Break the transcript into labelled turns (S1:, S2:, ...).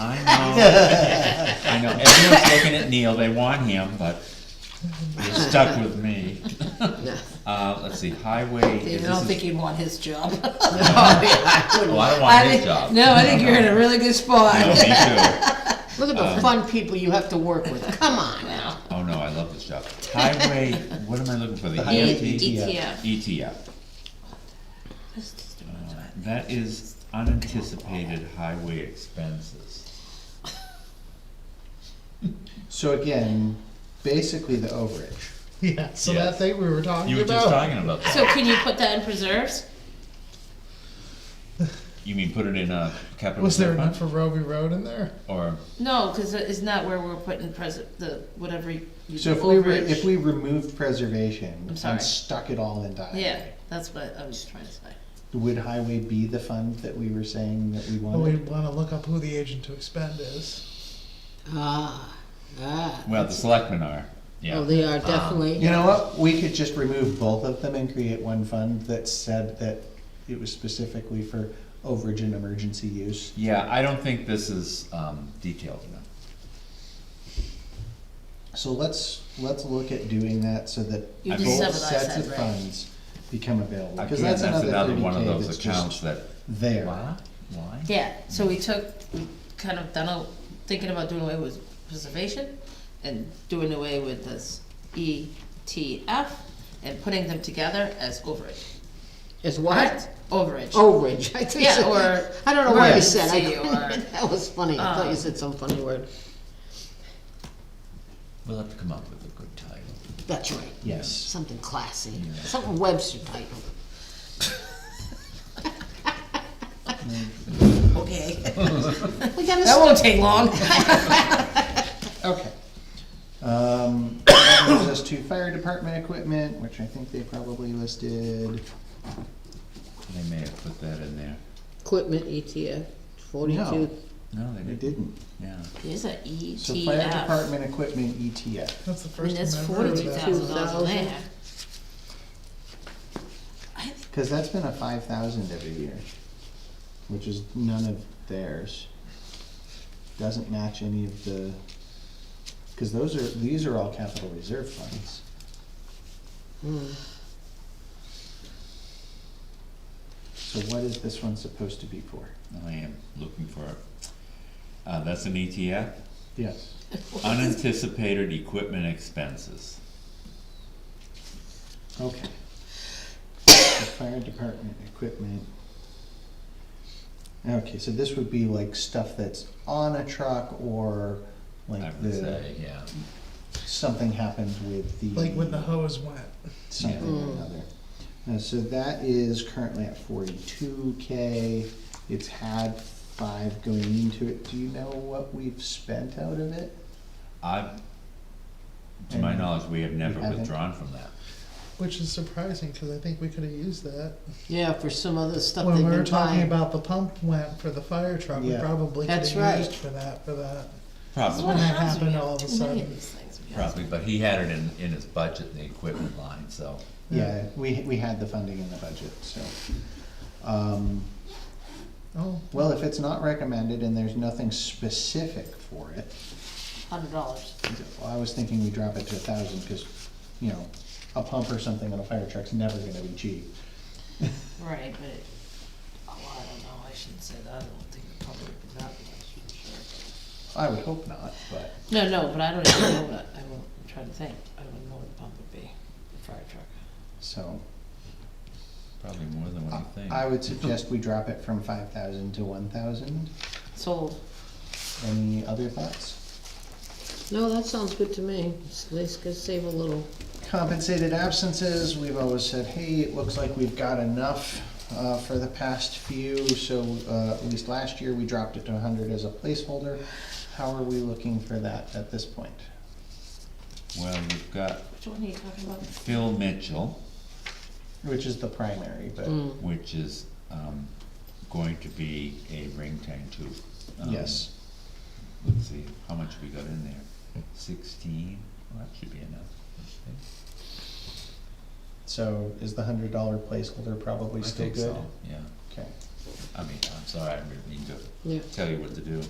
S1: I know. I know. Everyone's looking at Neil. They want him, but you're stuck with me. Uh, let's see, highway.
S2: I
S1: is
S2: don't
S1: this
S2: think
S1: is-
S2: you'd want his job.
S1: Oh,
S2: I
S1: I don't want his
S2: think-
S1: job.
S2: No, I think you're in a really good
S1: No,
S2: spot.
S1: me too.
S3: Look at
S2: Uh.
S3: the fun people you have to work with, come on now.
S1: Oh, no, I love this job. Highway, what am I looking for? The E
S3: highway
S2: E
S1: EMT?
S3: ETF.
S1: ETF. Uh, That is unanticipated highway expenses.
S4: So again, basically the overage.
S5: Yeah, so
S1: Yeah.
S5: that thing we were talking
S1: You were
S5: about.
S1: just talking about that.
S3: So can you put that in preserves?
S1: You mean put it in a capital
S5: was there
S1: reserve
S5: enough for
S1: fund?
S5: Roby Road in there?
S1: Or,
S3: No, cause it's not where we're putting present, the, whatever you.
S4: So if we, re-
S3: overage.
S4: if we removed preservation
S3: sorry.
S4: and stuck it all into highway.
S3: Yeah, that's what I was trying to say.
S4: Would highway be the fund that we were saying that we
S5: Well,
S4: wanted?
S5: we want to look up who the agent to expend is.
S2: Ah, ah.
S1: well, the selectmen are, yeah.
S2: Oh, they are definitely,
S5: Um,
S4: You know what, we could just remove both of them and create one fund that said that it was specifically for overage and emergency use.
S1: Yeah, I don't think this is, um, detailed enough.
S4: So let's, let's look at doing that so that
S3: You
S1: I
S3: just
S1: mean-
S3: have
S4: both
S3: what I
S4: sets
S3: said,
S4: of
S3: right?
S4: funds become available. Because
S1: Again,
S4: that's
S1: that's another
S4: another
S1: one of
S4: 30K
S1: those
S4: that's
S1: accounts
S4: just
S1: that,
S4: there.
S1: why, why?
S3: Yeah, so we took, we kind of done, a- thinking about doing away with preservation and doing away with this ETF and putting them together as overage.
S2: is what?
S3: Overage.
S4: Oh.
S2: Overage, I think.
S3: Yeah,
S2: so.
S3: or
S2: I don't know what you said. I
S3: emergency
S2: couldn't-
S3: or,
S2: That was funny. I thought you
S3: um,
S2: said some funny word.
S1: We'll have to come up with a good title.
S2: That's right.
S4: Yes.
S2: Something classy,
S1: Yeah.
S2: something Webster type.
S3: Okay.
S2: We gotta
S3: That
S2: start
S3: won't take long.
S4: Okay. Um, that brings us to fire department equipment, which I think they probably listed.
S1: They may have put that in there.
S2: equipment ETF,
S4: No,
S2: forty-two.
S1: No, they
S4: they
S1: didn't,
S4: didn't.
S1: yeah.
S3: There's an
S4: So
S3: E
S4: fire
S3: ETF.
S4: department equipment E ETF.
S5: That's the
S3: I mean,
S5: first
S3: that's
S5: time I heard of
S3: forty-two
S5: that.
S3: thousand dollars in there.
S4: Cause that's been a five thousand every year, which is none of theirs. Doesn't match any of the, cause those are, these are all capital reserve funds.
S2: Hmm.
S4: So what is this one supposed to be for?
S1: I am looking for it. Uh, that's an ETF,
S4: Yes.
S1: unanticipated equipment expenses.
S4: Okay. The fire department equipment. Okay, so this would be like stuff that's on a truck or
S1: I
S4: like
S1: would
S4: the,
S1: say, yeah.
S4: something happens with the.
S5: Like when the hose went.
S4: Something or another. Uh, so that is currently at forty-two K. It's had five going into it. Do you know what we've spent out of it?
S1: I, to my
S4: And
S1: knowledge, we have never
S4: we haven't.
S1: withdrawn from that.
S5: Which is surprising because I think we could have used that
S2: Yeah, for some other stuff
S5: when
S2: they've
S5: we were
S2: been
S5: talking
S2: buying.
S5: about the pump went for the fire truck. We
S4: Yeah.
S5: probably could
S2: That's
S5: have
S2: right.
S5: used for that for that.
S3: That's
S1: Probably,
S3: what
S5: When that
S3: happens when you
S5: happened
S3: have
S5: all of a
S3: too many
S5: sudden.
S3: these things. We have-
S1: probably, but he had it in, in his budget, the equipment line, so.
S4: Yeah, we, we had the funding in the budget, so. Um,
S5: Oh,
S4: Well, if it's not recommended and there's nothing specific for it,
S3: Hundred dollars.
S4: well, I was thinking we drop it to a thousand, cause, you know, a pump or something on a fire truck's never gonna be cheap.
S3: Right, but, it- oh, I don't know, I shouldn't say that, I don't think it probably would not be much for sure.
S4: I would hope not, but,
S3: No, no, but I don't even know what, I won't, I'm trying to think, I don't even know what the pump would be, the fire truck.
S4: so,
S1: Probably more than what you think.
S4: I would suggest we drop it from five thousand to one thousand.
S3: Sold,
S4: Any other thoughts?
S2: No, that sounds good to me. At least could save a little.
S4: Compensated absences, we've always said, hey, it looks like we've got enough, uh, for the past few, so, uh, at least last year, we dropped it to hundred as a placeholder. How are we looking for that at this point?
S1: Well, we've got
S3: which one are you talking about?
S1: Phil Mitchell,
S4: Which is the primary,
S2: Mm.
S4: but
S1: which is, um, going to be a ring tank too. Um,
S4: yes.
S1: Let's see, how much we got in there? Sixteen, well, that should be enough, I think.
S4: So is the hundred dollar placeholder probably
S1: I
S4: still
S1: think
S4: good?
S1: so, Yeah,
S4: Okay.
S1: I mean, I'm sorry, I didn't mean to
S2: Yeah.
S1: tell you what to do.